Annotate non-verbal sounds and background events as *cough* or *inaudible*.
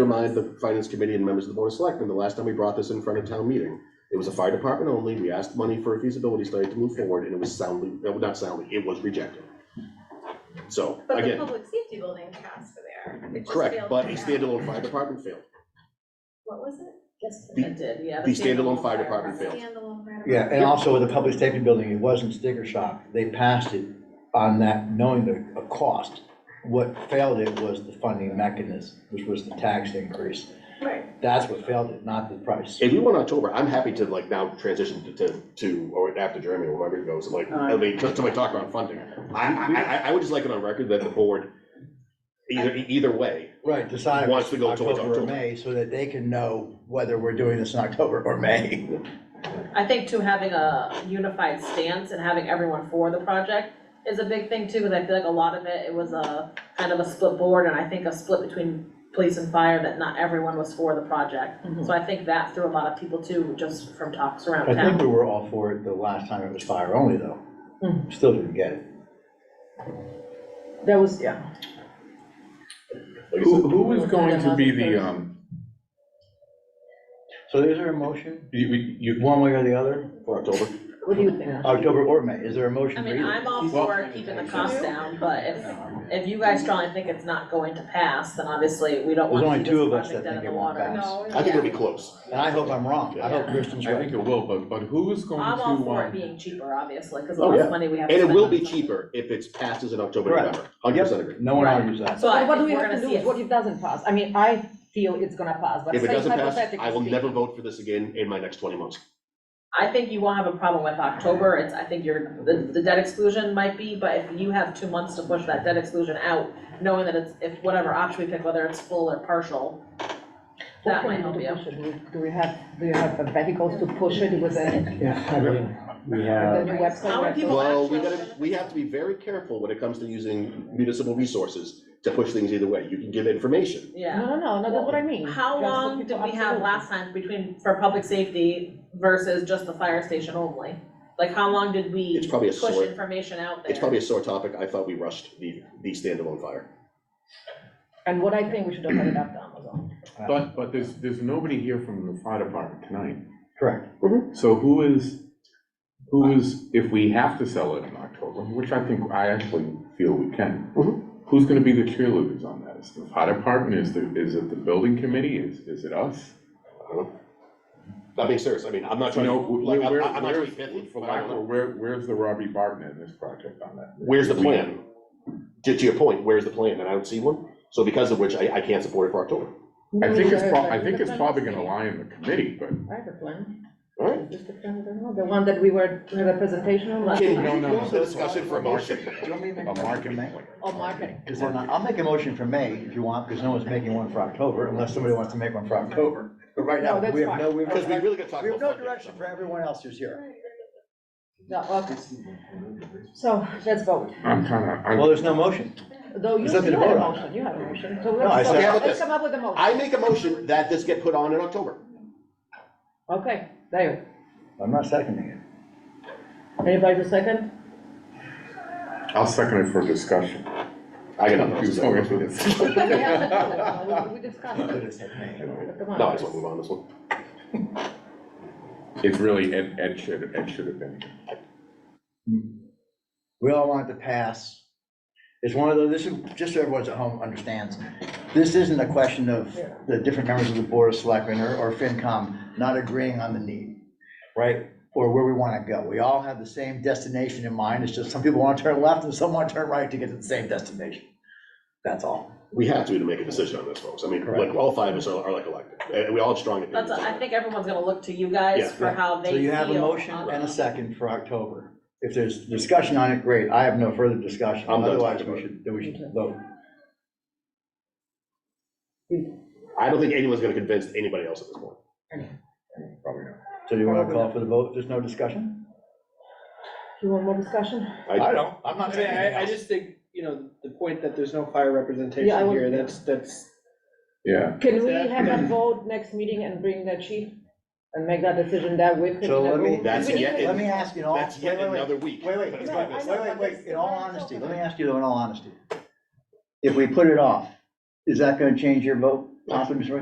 remind the finance committee and members of the board of selectmen, the last time we brought this in front of town meeting, it was a fire department only, we asked money for a feasibility study to move forward, and it was soundly, no, not soundly, it was rejected. So, But the again, public safety building passed there. It just correct, failed but to the pass. standalone fire department failed, What was it? Yes, The- it did, yeah. the standalone fire department failed. Standalone. fire Yeah, and department. also with the public safety building, it wasn't sticker shock. They passed it on that, knowing the uh, cost. What failed it was the funding mechanism, which was the tax increase. Right. That's what failed it, not the price. If you want October, I'm happy to like now transition to, to, to, or after Jeremy, or whoever it goes, and like, I mean, just to like talk about funding. I, I, I, I would just like it on record that the board, either, either way, Right, decide Wants to go towards October or October. May, so that they can know whether we're doing this in October or May. I think too, having a unified stance and having everyone for the project is a big thing too, because I feel like a lot of it, it was a kind of a split board, and I think a split between police and fire, that not everyone was for the project. So I think that threw a lot of people too, just from talks around I think town. we were all for it the last time it was fire only, though. Still didn't get it. That was, yeah. like I said, Who, who is going to be the, um, So is there a motion, you, we- you, one way or the other, for October. What do you think? Ash? October or May? Is there a motion I for mean, either? I'm all Well- for keeping the cost down, but if, if you guys strongly think it's not going to pass, then obviously we don't There's want to only see two this of us project that dead in think the it won't water. pass. No. I think it'll be close. And I hope I'm wrong. I hope Kristen's I think right. it will, but, but who's going to, I'm all for it um, being cheaper, obviously, because the Oh, less yeah. money we have to And it spend will on be something. cheaper if it's passed as an October, Correct. November, hundred percent agree. No one argues that. So I So what do think we we're have gonna to see lose? it. What if it doesn't pass? I mean, I feel it's gonna pass, but If it say doesn't pass, hypothetically I will speaking. never vote for this again in my next twenty months. I think you won't have a problem with October, it's, I think your, the, the debt exclusion might be, but if you have two months to push that debt exclusion out, knowing that it's, if whatever option we pick, whether it's full or partial, What that can we might do help you. to push it? Do we- Do we have, do you have the vehicles to push it with the, We with the have, new website? How many people Well, we actually- gotta, we have to be very careful when it comes to using municipal resources to push things either way. You can give information. Yeah. No, no, no, no, that's what I mean. How That's what long people- did we have absolutely. last time between, for public safety versus just the fire station only? Like, how long did It's we probably a push sore, information out there? it's probably a sore topic. I thought we rushed the, the standalone fire. And what I think we should have put it up to Amazon. but, but there's, there's nobody here from the fire department tonight. Correct. So who is, who is, if we have to sell it in October, which I think, I actually feel we can, Mhm. Mm-hmm. who's gonna be the cheerleaders on that? Is the fire department, is the, is it the building committee, is, is it us? I don't know. I'm being serious. I mean, I'm not You trying to, know, like, where, I'm where, I'm not trying to be where's- pithy, for but I lack don't of- know. where, where's the Robbie Barton in this project on that? Where's the We- plan? To, to your point, where's the plan? And I don't see one. So because of which, I, I can't support it for October. I think Mm-hmm. it's prob, probably. I think it's probably gonna lie in the committee, but I have a plan. All right? Just a plan, I don't know, the one that we were, we had a presentation on last Can time. we No, no, move the no. discussion for a Motion. motion? Do you want me to make a a motion marketing for May? plan. Oh, marketing. Is there not, I'll make a motion for May if you want, because no one's making one for October, unless somebody wants to make one for October. But right now, No, that's we have fine. no, we have Because we no, really gotta talk we about have no funding. direction for everyone else who's here. No, okay. So let's vote. I'm kinda, I'm. Well, there's no motion. Though you, There's nothing you had to a vote on. motion, you had a motion, so I let's, said- Yeah, vote. but let's the- come up with a motion. I make a motion that this get put on in October. Okay, there I'm not seconding you, anybody to second? I'll second it for discussion. I got Who's nothing. going else to *laughs* to this? say. We have to vote now. We- we discussed it, it. but come on. No, I just wanna move on this one. It's really, Ed, Ed should, Ed should have been. We all want it to pass. It's one of those, this is, just so everyone's at home understands, this isn't a question of the different members of the Board of Selectmen or, or FinCom not agreeing on the need, right? Or where we want to go. We all have the same destination in mind. It's just some people want to turn left and some want to turn right to get to the same destination. That's all. We have to to make a decision on this, folks. I mean, like, Correct. all five of us are, are like elected, and we all have strong opinions. That's, I on it. think everyone's gonna look to you Yeah. guys for how they So feel. you have a motion on and a that. second for October. If there's discussion on it, great. I have no further discussion. I'm done Otherwise, talking we about should, then we should vote. I don't think anyone's gonna convince anybody else at this point. Probably not. So do you want to call for the vote? There's no discussion? You want more discussion? I, don't. I'm I not mean, saying anything I, I else. just think, you know, the point that there's no fire Yeah, I representation would- here, that's, that's, Yeah, Can we have a vote next meeting and bring the chief and make that decision that way? So let me- That's We need yet- to- Let me ask you in all. that's yet wait, wait, wait. another week. Wait, wait, wait, That's wait, my wait, best- wait, wait, in all honesty, let me ask you though, in all honesty. If we put it off, is that gonna change your vote, possibly, Mr. Ray?